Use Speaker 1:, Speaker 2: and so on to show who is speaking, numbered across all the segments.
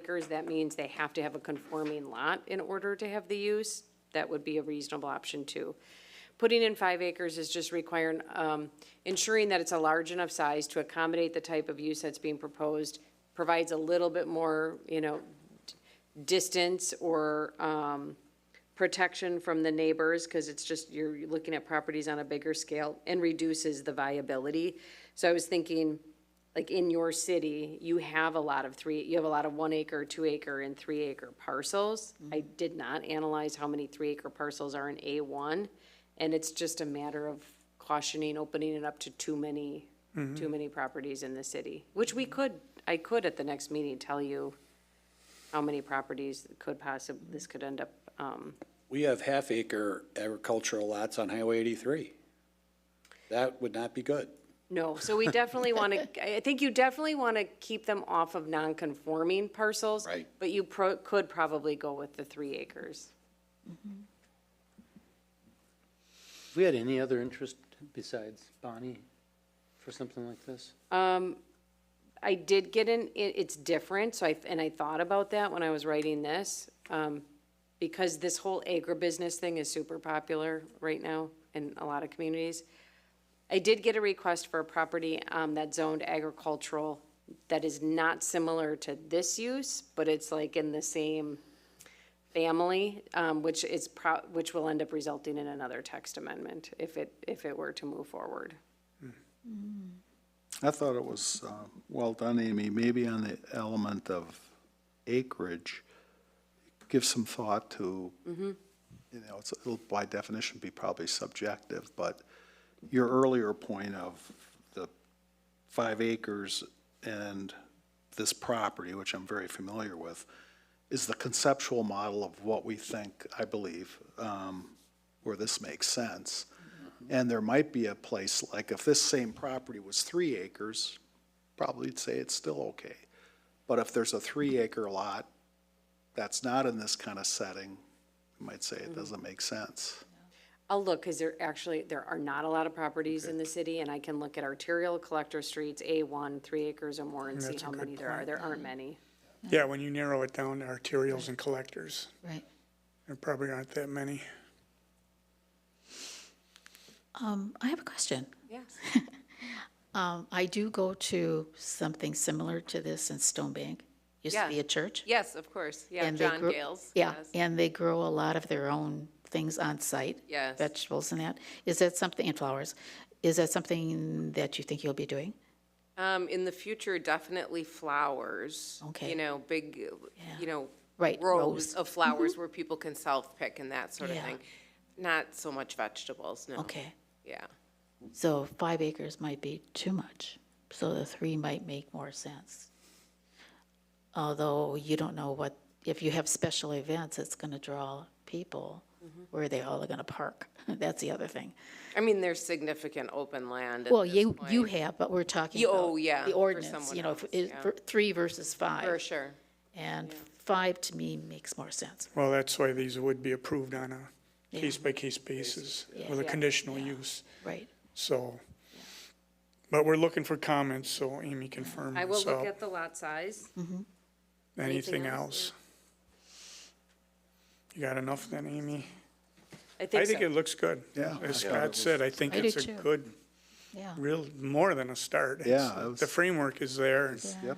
Speaker 1: acres, that means they have to have a conforming lot in order to have the use. That would be a reasonable option too. Putting in five acres is just requiring, um, ensuring that it's a large enough size to accommodate the type of use that's being proposed, provides a little bit more, you know, d- distance or, um, protection from the neighbors, because it's just, you're looking at properties on a bigger scale, and reduces the viability. So I was thinking, like, in your city, you have a lot of three, you have a lot of one acre, two acre, and three acre parcels. I did not analyze how many three acre parcels are in A one, and it's just a matter of cautioning, opening it up to too many, too many properties in the city, which we could, I could at the next meeting tell you how many properties could possibly, this could end up, um,
Speaker 2: We have half-acre agricultural lots on Highway 83. That would not be good.
Speaker 1: No, so we definitely want to, I think you definitely want to keep them off of non-conforming parcels.
Speaker 2: Right.
Speaker 1: But you pro, could probably go with the three acres.
Speaker 3: Have we had any other interest besides Bonnie for something like this?
Speaker 1: I did get in, it, it's different, so I, and I thought about that when I was writing this. Um, because this whole agribusiness thing is super popular right now in a lot of communities. I did get a request for a property, um, that's zoned agricultural that is not similar to this use, but it's like in the same family, um, which is pro, which will end up resulting in another text amendment if it, if it were to move forward.
Speaker 4: I thought it was, uh, well done, Amy, maybe on the element of acreage, give some thought to, you know, it's, it'll by definition be probably subjective, but your earlier point of the five acres and this property, which I'm very familiar with, is the conceptual model of what we think, I believe, um, where this makes sense. And there might be a place, like if this same property was three acres, probably you'd say it's still okay. But if there's a three acre lot that's not in this kind of setting, you might say it doesn't make sense.
Speaker 1: I'll look, because there actually, there are not a lot of properties in the city, and I can look at arterial collector streets, A1, three acres or more, and see
Speaker 5: That's a
Speaker 1: how
Speaker 5: good
Speaker 1: many there are.
Speaker 5: point.
Speaker 1: There aren't many.
Speaker 5: Yeah, when you narrow it down to arterials and collectors,
Speaker 6: Right.
Speaker 5: there probably aren't that many.
Speaker 6: Um, I have a question.
Speaker 1: Yes.
Speaker 6: Um, I do go to something similar to this in Stone Bank. Used to
Speaker 7: Yeah.
Speaker 6: be a church.
Speaker 7: Yes, of course. Yeah,
Speaker 6: and they
Speaker 7: John
Speaker 6: grow-
Speaker 7: Gales.
Speaker 6: Yeah,
Speaker 7: Yes.
Speaker 6: and they grow a lot of their own things on site.
Speaker 7: Yes.
Speaker 6: Vegetables and that. Is that something, and flowers. Is that something that you think you'll be doing?
Speaker 7: Um, in the future, definitely flowers.
Speaker 6: Okay.
Speaker 7: You know, big, you know.
Speaker 6: Right,
Speaker 7: Rows
Speaker 6: rows.
Speaker 7: of flowers where people can self-pick and that sort of
Speaker 6: Yeah.
Speaker 7: thing. Not so much vegetables, no.
Speaker 6: Okay.
Speaker 7: Yeah.
Speaker 6: So five acres might be too much. So the three might make more sense. Although you don't know what, if you have special events, it's going to draw people
Speaker 7: Mm-hmm.
Speaker 6: where they all are going to park. That's the other thing.
Speaker 7: I mean, there's significant open land. at
Speaker 6: Well,
Speaker 7: this
Speaker 6: you,
Speaker 7: point,
Speaker 6: you have, but we're talking
Speaker 7: Yeah,
Speaker 6: about.
Speaker 7: oh, yeah,
Speaker 6: The
Speaker 7: for
Speaker 6: ordinance,
Speaker 7: someone
Speaker 6: you know, if-
Speaker 7: else,
Speaker 6: is-
Speaker 7: yeah.
Speaker 6: for three versus
Speaker 7: For
Speaker 6: five.
Speaker 7: sure.
Speaker 6: And five to me makes more sense.
Speaker 5: Well, that's why these would be approved on a case-by-case basis with a
Speaker 6: Yeah.
Speaker 5: conditional use,
Speaker 6: Right,
Speaker 5: so. But we're looking for comments, so Amy can firm
Speaker 1: I will
Speaker 5: this
Speaker 1: look
Speaker 5: up.
Speaker 1: at the lot size.
Speaker 5: Anything
Speaker 1: anything
Speaker 5: else? You got enough then, Amy?
Speaker 1: I
Speaker 5: I
Speaker 1: think
Speaker 5: think it
Speaker 1: so.
Speaker 5: looks good.
Speaker 4: Yeah.
Speaker 5: As Scott said, I think
Speaker 6: I do
Speaker 5: it's a
Speaker 6: too.
Speaker 5: good,
Speaker 6: yeah.
Speaker 5: real, more than a start. It's-
Speaker 4: Yeah, it was-
Speaker 5: The framework is there.
Speaker 4: Yep.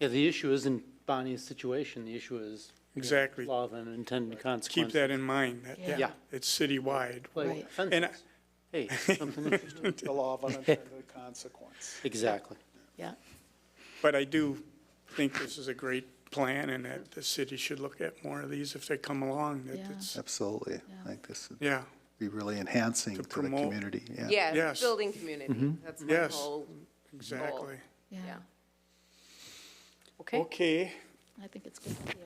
Speaker 3: Yeah, the issue isn't Bonnie's situation, the issue is. you know,
Speaker 5: Exactly.
Speaker 3: Law of unintended
Speaker 5: Keep
Speaker 3: consequences.
Speaker 5: that in mind, that,
Speaker 6: Yeah.
Speaker 5: yeah,
Speaker 3: Yeah.
Speaker 5: it's citywide.
Speaker 3: Like
Speaker 6: Right.
Speaker 5: And I-
Speaker 3: fences. Hey, something interesting.
Speaker 4: The law of unintended consequence.
Speaker 3: Exactly.
Speaker 6: Yeah,
Speaker 5: But I do think this is a great plan and that the city should look at more of these if they come along, that
Speaker 6: Yeah.
Speaker 5: it's,
Speaker 4: Absolutely. I think this would
Speaker 5: yeah,
Speaker 4: be really enhancing
Speaker 5: To
Speaker 4: to the
Speaker 5: promote.
Speaker 4: community, yeah.
Speaker 7: Yeah,
Speaker 5: Yes.
Speaker 7: building community. That's my
Speaker 5: Yes.
Speaker 7: whole,
Speaker 5: exactly.
Speaker 6: yeah.
Speaker 7: yeah.
Speaker 1: Okay.
Speaker 5: Okay,
Speaker 6: I think it's a good idea.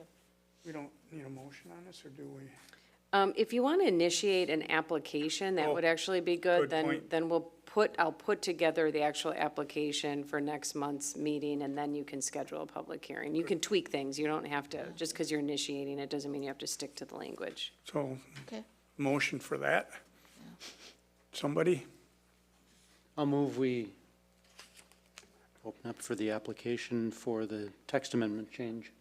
Speaker 5: we don't need a motion on this, or do we?
Speaker 1: Um, if you want to initiate an application, that
Speaker 5: Oh,
Speaker 1: would actually be
Speaker 5: good
Speaker 1: good. Then,
Speaker 5: point.
Speaker 1: then we'll put, I'll put together the actual application for next month's meeting, and then you can schedule a public hearing. You can tweak things. You don't have to, just because you're initiating it doesn't mean you have to stick to the language.
Speaker 5: So,
Speaker 6: Okay.
Speaker 5: motion for that? Somebody?
Speaker 3: I'll move we open up for the application for the text amendment change.